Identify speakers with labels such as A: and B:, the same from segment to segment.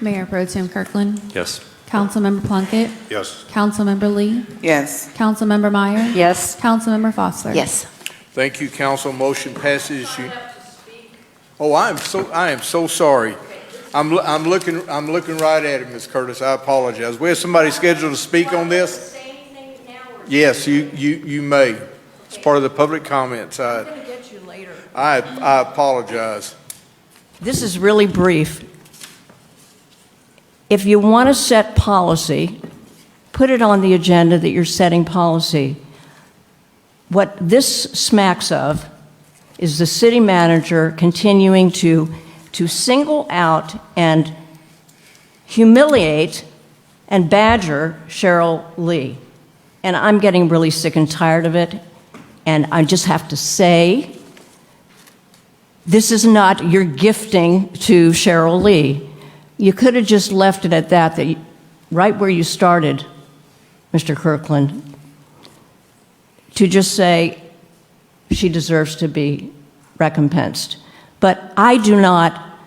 A: Mayor Pro Tim Kirkland.
B: Yes.
A: Councilmember Plunkett.
C: Yes.
A: Councilmember Lee.
D: Yes.
A: Councilmember Meyer.
E: Yes.
A: Councilmember Foster.
E: Yes.
C: Thank you, council. Motion passes. You- Oh, I am so, I am so sorry. I'm, loo- I'm looking, I'm looking right at it, Ms. Curtis. I apologize. We have somebody scheduled to speak on this? Yes, you, you, you may. It's part of the public comments. I,
F: going to get you later.
C: I I apologize.
F: This is really brief. If you want to set policy, put it on the agenda that you're setting policy. What this smacks of is the city manager continuing to, to single out and humiliate and badger Cheryl Lee. And I'm getting really sick and tired of it. And I just have to say, this is not your gifting to Cheryl Lee. You could have just left it at that, that you- right where you started, Mr. Kirkland, to just say she deserves to be recompensed. But I do not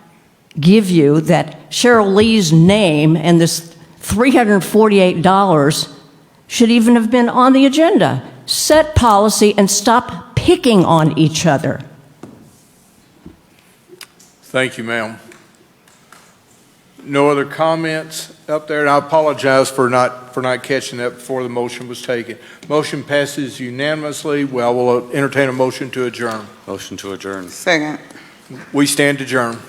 F: give you that Cheryl Lee's name and this $348 should even have been on the agenda. Set policy and stop picking on each other.
C: Thank you, ma'am. No other comments up there, and I apologize for not, for not catching that before the motion was taken. Motion passes unanimously. Well, we'll entertain a motion to adjourn.
B: Motion to adjourn.
D: Second.
C: We stand adjourned.